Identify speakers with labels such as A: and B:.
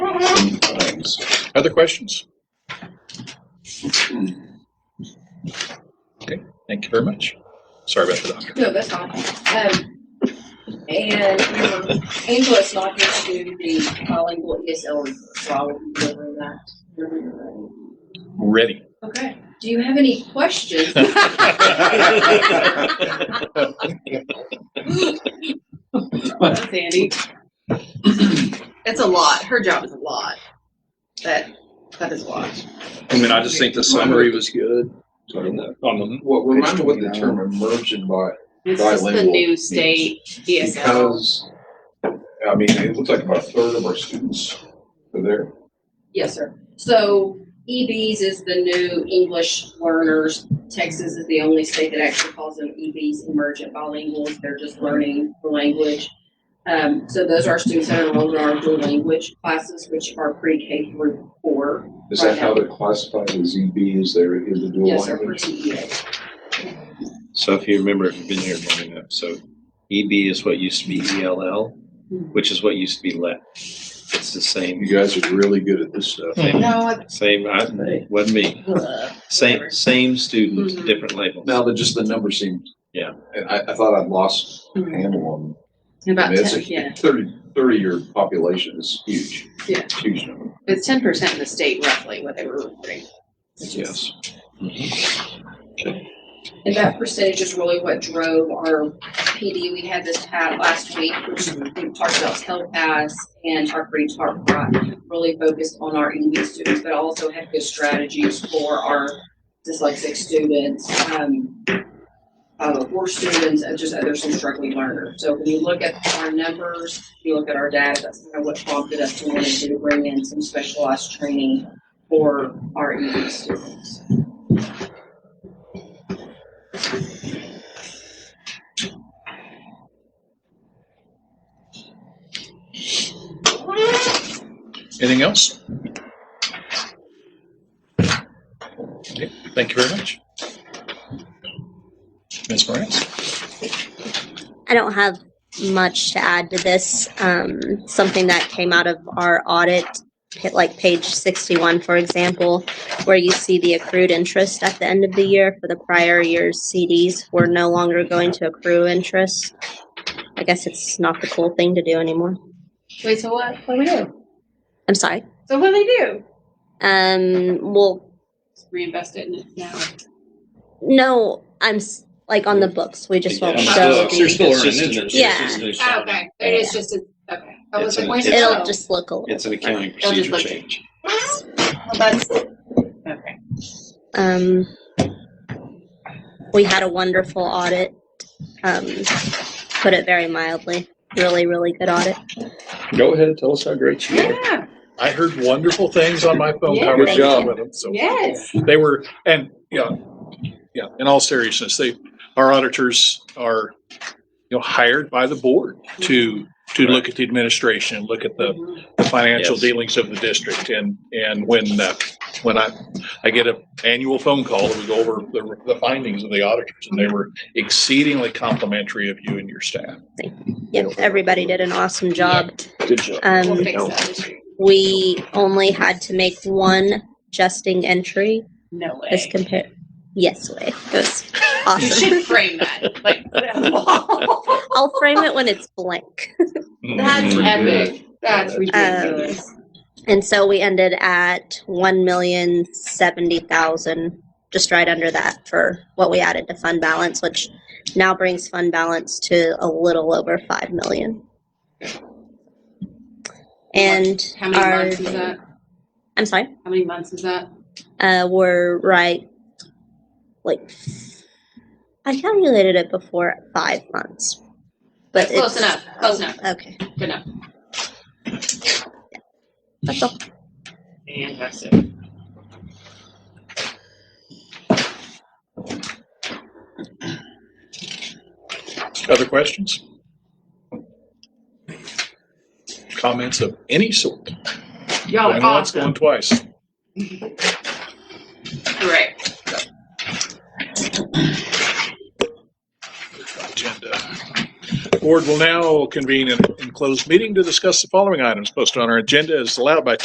A: Thanks. Other questions? Okay, thank you very much. Sorry about the doctor.
B: No, that's fine. Um, and um, Angela's not here to do the bilingual ESL report, so I will be delivering that.
A: Ready.
B: Okay. Do you have any questions?
C: That's Andy. It's a lot. Her job is a lot. That, that is a lot.
D: I mean, I just think the summary was good. On the- on
E: Well, remind me what the term immersion by,
C: It's just the
E: Bilingual
C: new
E: means-
C: state E ESL.
E: because, I mean, it looks like about a third of our students are there.
B: Yes, sir. So EBs is the new English learners. Texas is the only state that actually calls them EBs, emergent bilinguals. They're just learning the language. Um, so those are students that are enrolled in our dual language classes, which are pre-K through four.
E: Is that how they're classified as EBs, there is the dual
B: Yes, sir, for
E: language?
B: TEA.
D: So if you remember, if you've been here long enough, so EB is what used to be ELL, which is what used to be LET. It's the
E: You
D: same,
E: guys are really good at this stuff.
C: No,
D: same, I, wasn't me.
C: it's.
D: Same, same student,
C: Mhm.
D: different label.
E: Now that just the number seems.
D: Yeah.
E: And I, I thought I'd lost
B: Mm-hmm.
C: Mhm.
E: handle on, I
C: About
E: mean, it's
C: ten,
E: a
C: yeah.
E: thirty, thirty-year population is huge.
C: Yeah.
E: Huge number.
C: It's ten percent in the state roughly what they were reporting. which is-
E: Yes.
B: And that percentage is really what drove our PD. We had this pat last week, which we talked about telepass and our free talk bot, really focused on our ED students, but also had good strategies for our dyslexic students, um, uh, poor students, and just others who struggling learners. So when you look at our numbers, you look at our data, that's kind of what prompted us to want to bring in some specialized training for our ED students.
A: Anything else? Okay, Thank you very much. Ms. Morantz?
F: I don't have much to add to this. Um, something that came out of our audit, hit like page 61, for example, where you see the accrued interest at the end of the year for the prior year's CDs, we're no longer going to accrue interest. I guess it's not the cool thing to do anymore.
C: Wait, so what, what do we do?
F: I'm sorry.
C: So what do they do?
F: Um, well,
C: Reinvest it in it now.
F: no, I'm s- like on the books. We just won't
D: Yeah,
G: On the
F: show.
G: books, You're
F: The,
G: still
D: It's
G: earning
D: just an-
G: interest.
F: Yeah.
G: It's just an
C: Oh,
G: accounting.
C: Okay, it is just a, okay. I was
D: It's
C: like,
D: an-
C: where's it
F: it'll
C: go?
F: just look a little.
D: It's an accounting
C: It'll just
D: procedure
C: look-
D: change.
C: Well, that's- Okay.
F: Um, we had a wonderful audit, um, put it very mildly. Really, really good audit.
D: Go ahead and tell us how great you are.
C: Yeah,
A: I heard wonderful things on my phone
C: Yeah.
A: conversation with them, so.
C: yes.
A: They were, and, yeah, yeah, in all seriousness, they, our auditors are, you know, hired by the board to, to look at the administration, look at the
C: Mhm.
A: the financial
D: Yes.
A: dealings of the district. And, and when, uh, when I, I get an annual phone call that we go over the, the findings of the auditors and they were exceedingly complimentary of you and your staff.
F: Yep, everybody did an awesome job.
D: Good job.
C: We'll
F: Um,
C: fix that this year.
F: we only had to make one adjusting entry
C: No way.
F: as compared. Yes, way. It was
C: You
F: awesome.
C: should frame that. Like, put it on the wall.
F: I'll frame it when it's blank.
C: That's epic. That's ridiculous.
F: And so we ended at one million seventy thousand, just right under that for what we added to fund balance, which now brings fund balance to a little over five million. And
C: How many
F: our,
C: months is that?
F: I'm sorry,
C: How many months is that?
F: uh, we're right, like, I calculated it before at five months, but
C: That's close
F: it's-
C: enough. Close enough.
F: Okay,
C: Good enough.
F: that's all.
C: Fantastic.
A: Other questions? Comments of any sort?
C: Y'all
A: Going
C: are
A: once, Going
C: awesome.
A: twice.
C: Great.
A: Agenda. Board will now convene in, in closed meeting to discuss the following items posted on our agenda as allowed by